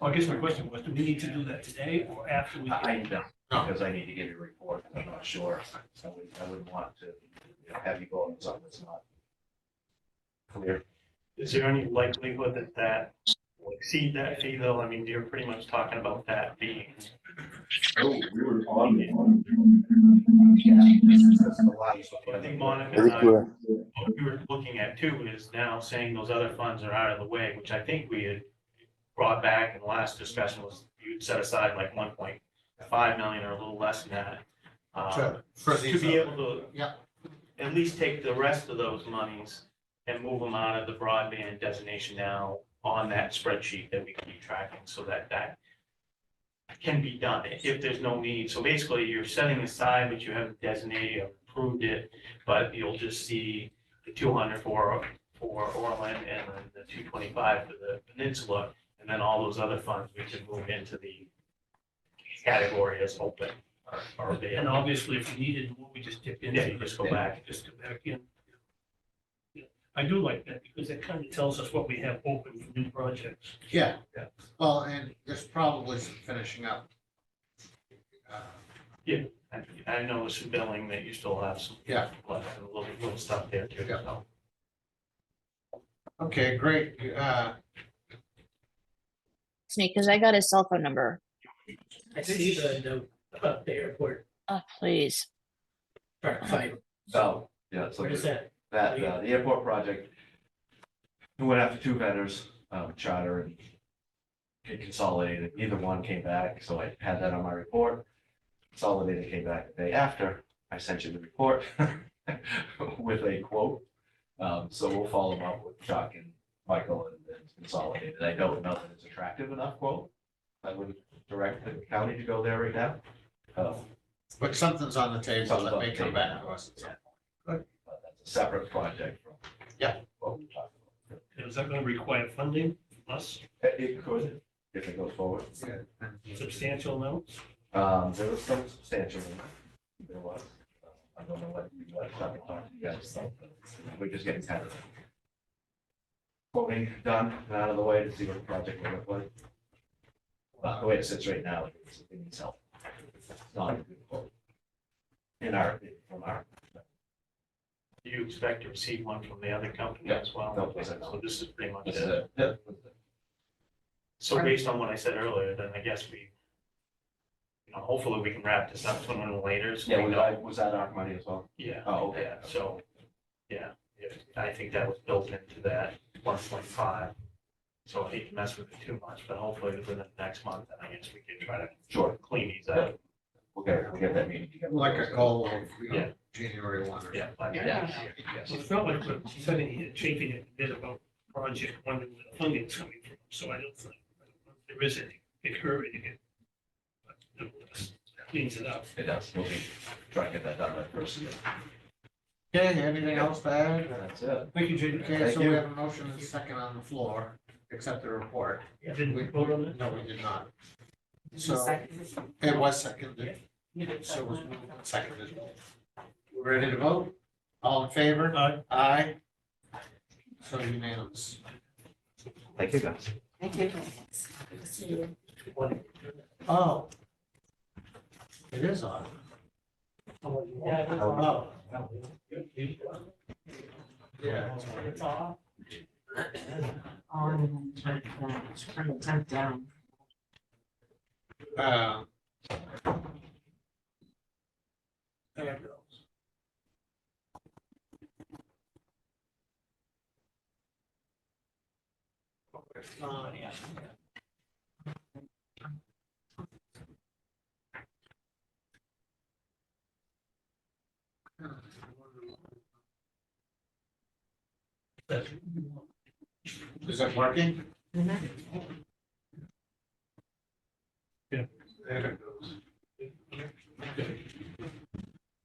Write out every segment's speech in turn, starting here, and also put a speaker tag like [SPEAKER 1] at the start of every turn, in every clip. [SPEAKER 1] Well, I guess my question was, do we need to do that today or after we?
[SPEAKER 2] I
[SPEAKER 1] get-
[SPEAKER 2] I don't, because I need to give you a report, I'm not sure, I would, I would want to you know, have you go on something that's not clear.
[SPEAKER 3] Is there any likelihood that that will exceed that fee though? I mean, you're pretty much talking about that being,
[SPEAKER 2] Oh, We were on the.
[SPEAKER 3] I think Monica
[SPEAKER 4] I
[SPEAKER 3] and
[SPEAKER 5] Uh,
[SPEAKER 4] think
[SPEAKER 3] I,
[SPEAKER 4] we're,
[SPEAKER 3] what we were looking at too is now saying those other funds are out of the way, which I think we had brought back in the last discussion was you'd set aside like one point five million or a little less than that. uh,
[SPEAKER 6] Sure, Um, for
[SPEAKER 3] To
[SPEAKER 6] these,
[SPEAKER 3] be
[SPEAKER 6] uh,
[SPEAKER 3] able to.
[SPEAKER 6] yeah.
[SPEAKER 3] At least take the rest of those monies and move them out of the broadband designation now on that spreadsheet that we keep tracking so that that can be done if there's no need. So basically, you're setting aside what you have designated, you approved it, but you'll just see the two hundred for, for Orland and then the two twenty-five for the peninsula. And then all those other funds, we can move into the category as open or- or
[SPEAKER 1] And
[SPEAKER 3] available.
[SPEAKER 1] obviously, if we needed, what we just dip
[SPEAKER 3] Yeah,
[SPEAKER 1] into,
[SPEAKER 3] you
[SPEAKER 1] just
[SPEAKER 3] just
[SPEAKER 1] go
[SPEAKER 3] go back.
[SPEAKER 1] just go back in. Yeah, I do like that because it kind of tells us what we have open for new projects.
[SPEAKER 6] Yeah.
[SPEAKER 1] Yeah.
[SPEAKER 6] Well, and there's probably some finishing up. Uh,
[SPEAKER 3] I- I know some billing that you still have some.
[SPEAKER 6] Yeah.
[SPEAKER 3] left, A little, little stuff there too.
[SPEAKER 6] Yeah.
[SPEAKER 3] so.
[SPEAKER 6] Okay, great. Uh,
[SPEAKER 5] Snake, because I got his cell phone number.
[SPEAKER 7] I see the note about the airport
[SPEAKER 5] Oh, please.
[SPEAKER 7] dark fiber.
[SPEAKER 2] So, yeah, so
[SPEAKER 7] Where is that?
[SPEAKER 2] that, uh, the airport project. We went after two vendors, um, charter and it consolidated, neither one came back, so I had that on my report. Consolidated came back the day after, I sent you the report with a quote. Um, so we'll follow up with Chuck and Michael and then Consolidated, I don't know that it's attractive enough quote. I would direct the county to go there right now. Um,
[SPEAKER 6] but something's on the table that may come back to us.
[SPEAKER 2] but that's a separate project from.
[SPEAKER 6] Yeah.
[SPEAKER 2] What we talked about.
[SPEAKER 1] And Is that going to require funding from us,
[SPEAKER 2] It- It could, if it goes forward.
[SPEAKER 1] substantial amounts?
[SPEAKER 2] Um, there was some substantial, in it. there was. Uh, I don't know what you guys have talked to you guys about, but we're just getting kind of quoting done and out of the way to see what the project will look like. But the way it sits right now, it's it needs help. It's not a good quote. In our, from our,
[SPEAKER 3] Do you expect to receive one from the other company
[SPEAKER 2] Yeah.
[SPEAKER 3] as well?
[SPEAKER 2] No, it's not.
[SPEAKER 3] So this is pretty much
[SPEAKER 2] this
[SPEAKER 3] it.
[SPEAKER 2] is it.
[SPEAKER 3] So based on what I said earlier, then I guess we, you know, hopefully we can wrap this up sooner than later. so
[SPEAKER 2] Yeah,
[SPEAKER 3] we
[SPEAKER 2] was
[SPEAKER 3] know-
[SPEAKER 2] that, was that our money as well?
[SPEAKER 3] Yeah.
[SPEAKER 2] Oh, okay.
[SPEAKER 3] Yeah, so, yeah, if- I think that was built into that one point five. So I hate to mess with it too much, but hopefully within the next month, then I guess we can try to
[SPEAKER 2] Sure,
[SPEAKER 3] clean these up.
[SPEAKER 2] we'll get, we'll get that meeting together.
[SPEAKER 6] Like a goal of, you
[SPEAKER 3] Yeah.
[SPEAKER 6] know, January one or.
[SPEAKER 3] Yeah. by the end of the
[SPEAKER 2] Yeah,
[SPEAKER 3] year.
[SPEAKER 2] yes.
[SPEAKER 1] So it's not like we're sitting here chafing it a bit about project, wondering where the funding's coming from, so I don't think there is any big hurry to get. but nevertheless, that Cleans it up.
[SPEAKER 2] It does, we'll be trying to get that done by first year.
[SPEAKER 6] Okay, anything else to add?
[SPEAKER 2] That's it.
[SPEAKER 1] Thank you, Jay.
[SPEAKER 6] Okay,
[SPEAKER 2] Thank
[SPEAKER 6] so we
[SPEAKER 2] you.
[SPEAKER 6] have a motion and a second on the floor, accept the report.
[SPEAKER 1] You didn't vote on it?
[SPEAKER 6] No, we did not. So it was seconded, so it was moved and seconded. We're Ready to vote? All in favor?
[SPEAKER 1] Aye.
[SPEAKER 6] Aye. So unanimous.
[SPEAKER 2] Thank you, guys.
[SPEAKER 8] Thank you.
[SPEAKER 6] Oh. It is on. Oh, yeah.
[SPEAKER 8] On, trying to type down.
[SPEAKER 6] Um, Is that working? There it goes.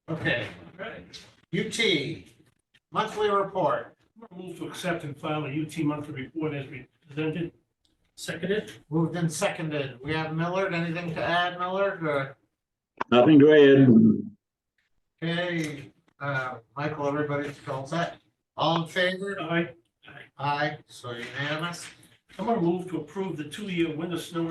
[SPEAKER 6] Okay, UT, monthly report.
[SPEAKER 1] Move to accept and file a UT monthly report as we presented. Seconded.
[SPEAKER 6] Moved and seconded. We have Millard. Anything to add, Millard? Or-
[SPEAKER 4] nothing to add.
[SPEAKER 6] Okay, uh, Michael, everybody's all set? All in favor?
[SPEAKER 1] I,
[SPEAKER 6] Aye, so unanimous.
[SPEAKER 1] I'm gonna move to approve the two-year winter snow